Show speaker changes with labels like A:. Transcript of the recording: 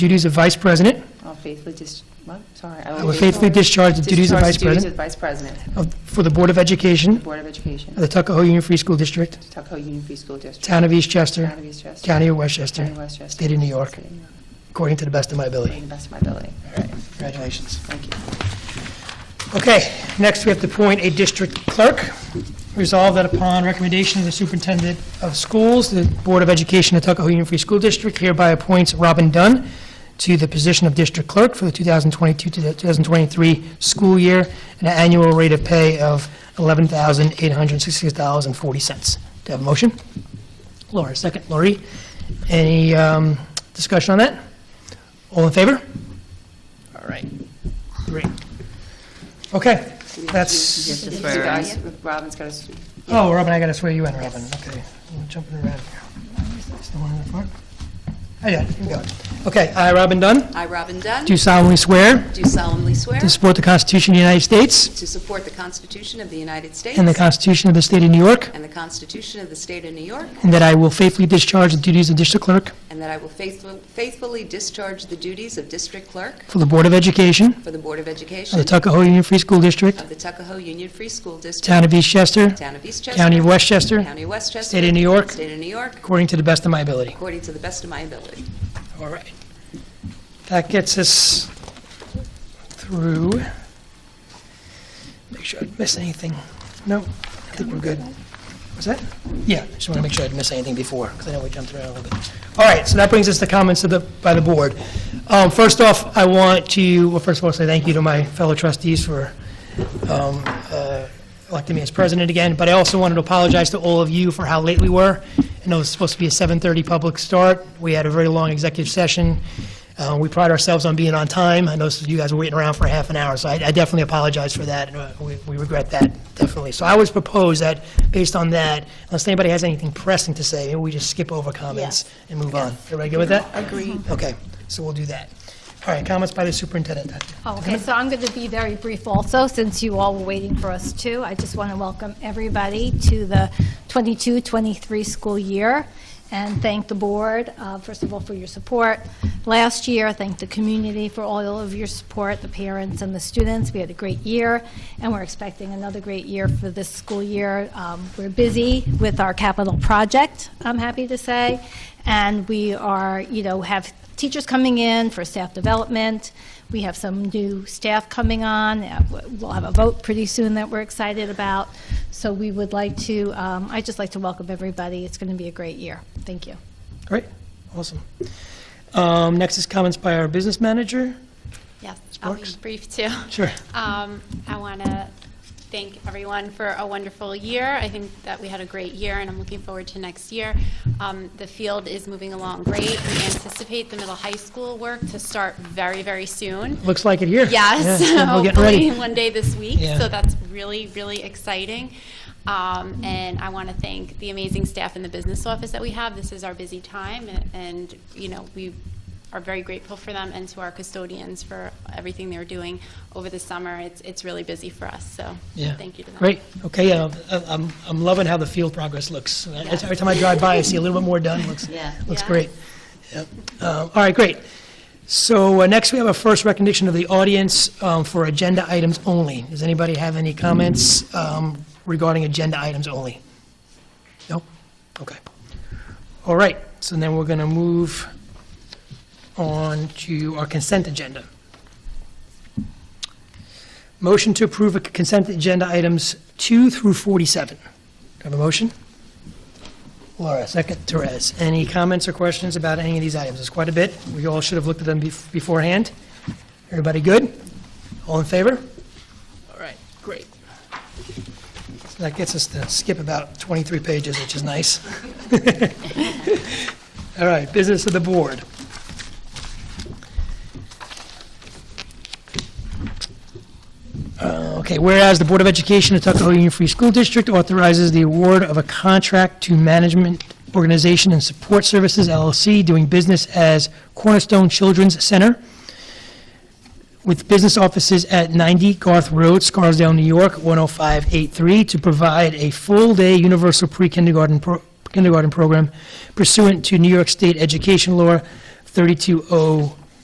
A: duties of vice president.
B: I'll faithfully dis, what, sorry.
A: I will faithfully discharge the duties of vice
B: discharge the duties
A: president
B: of Vice President
A: of-
B: of
A: for the Board of
B: the
A: Education
B: Board of Education
A: of the Tuckahoe Union Free School District,
B: of Tuckahoe Union Free School District.
A: Town of
B: Town
A: Eastchester,
B: of Eastchester.
A: County of
B: County
A: Westchester,
B: of Westchester.
A: State of New York.
B: State of New York.
A: according to the best of my
B: To
A: ability.
B: the best of my ability.
A: Congratulations.
B: Thank you.
A: Okay, next we have to appoint a district clerk. Resolve that upon recommendation of the superintendent of schools, the Board of Education of Tuckahoe Union Free School District hereby appoints Robin Dunn to the position of district clerk for the 2022 to 2023 school year at an annual rate of pay of $11,866.40. Do I have a motion? Laura, second. Lori, any um, discussion on that? All in favor? All right, great. Okay, that's,
B: You guys, Robin's got to,
A: oh, Robin, I gotta swear you in, Robin, okay. I'm Jumping around here. Is the one in the front? Oh, yeah, here we go. Okay, I, Robin Dunn,
C: I, Robin Dunn,
A: do solemnly swear
C: do solemnly swear
A: to support the Constitution of the United States
C: to support the Constitution of the United States
A: and the Constitution of the State of New York,
C: and the Constitution of the State of New York,
A: and that I will faithfully discharge the duties of district clerk
C: and that I will faithful- faithfully discharge the duties of District Clerk
A: for the Board of Education
C: for the Board of
A: of
C: Education
A: the Tuckahoe Union Free School District,
C: of the Tuckahoe Union Free School District,
A: Town of Eastchester,
C: Town of Eastchester,
A: County of Westchester,
C: County of Westchester,
A: State of New York,
C: State of New York,
A: according to the best of my ability.
C: according to the best of my ability.
A: All right. That gets us through. Make sure I didn't miss anything. No, I think we're good. Was that? Yeah, just want to make sure I didn't miss anything before, because I know we jumped around a little bit. All right, so that brings us to comments of the, by the board. Um, First off, I want to, well, first of all, say thank you to my fellow trustees for um, uh, electing me as president again, but I also wanted to apologize to all of you for how late we were. I know it was supposed to be a 7:30 public start. We had a very long executive session. Uh, We pride ourselves on being on time. I know some of you guys were waiting around for half an hour, so I I definitely apologize for that. and, uh, We we regret that, definitely. So I always propose that, based on that, unless anybody has anything pressing to say, maybe we just skip over comments and move on. Everybody good with that? Agreed. Okay, so we'll do that. All right, comments by the superintendent.
D: Okay, so I'm going to be very brief also, since you all were waiting for us too. I just want to welcome everybody to the 22-23 school year and thank the board, uh, first of all, for your support. Last year, thank the community for all of your support, the parents and the students. We had a great year, and we're expecting another great year for this school year. Um, We're busy with our capital project, I'm happy to say, and we are, you know, have teachers coming in for staff development. We have some new staff coming on. Uh, We'll have a vote pretty soon that we're excited about. So we would like to, um, I'd just like to welcome everybody. It's going to be a great year. Thank you.
A: Great, awesome. Um, Next is comments by our business manager.
E: Yes, I'll be
A: Sparks?
E: brief too.
A: Sure.
E: Um, I want to thank everyone for a wonderful year. I think that we had a great year, and I'm looking forward to next year. Um, The field is moving along great. We anticipate the middle high school work to start very, very soon.
A: Looks like it here.
E: Yes,
A: Yeah, We're getting
E: hopefully
A: ready.
E: one day this week.
A: Yeah.
E: So that's really, really exciting. Um, and I want to thank the amazing staff in the business office that we have. This is our busy time, and, and you know we are very grateful for them and to our custodians for everything they're doing over the summer. It's it's really busy for us. So
A: Yeah.
E: thank you to them.
A: Great, okay, yeah, I- I'm, I'm loving how the field progress looks. Uh, Every time I drive by, I see a little bit more done, looks,
B: Yeah.
A: looks
E: Yeah.
A: great. Yep. Uh, All right, great. So uh, next, we have a first recognition of the audience um, for agenda items only. Does anybody have any comments um, regarding agenda items only? No? Okay. All right, so then we're going to move on to our consent agenda. Motion to approve a consent agenda items 2 through 47. Do I have a motion? Laura, second, Therese. Any comments or questions about any of these items? There's quite a bit. We all should have looked at them bef- beforehand. Everybody good? All in favor? All right, great. So That gets us to skip about 23 pages, which is nice. All right, business of the board. Uh, Okay, whereas the Board of Education of Tuckahoe Union Free School District authorizes the award of a contract to Management Organization and Support Services LLC doing business as Cornerstone Children's Center with business offices at 90 Garth Road, Scarsdale, New York, 10583, to provide a full-day universal pre-kindergarten pro- kindergarten program pursuant to New York State Education Law 3201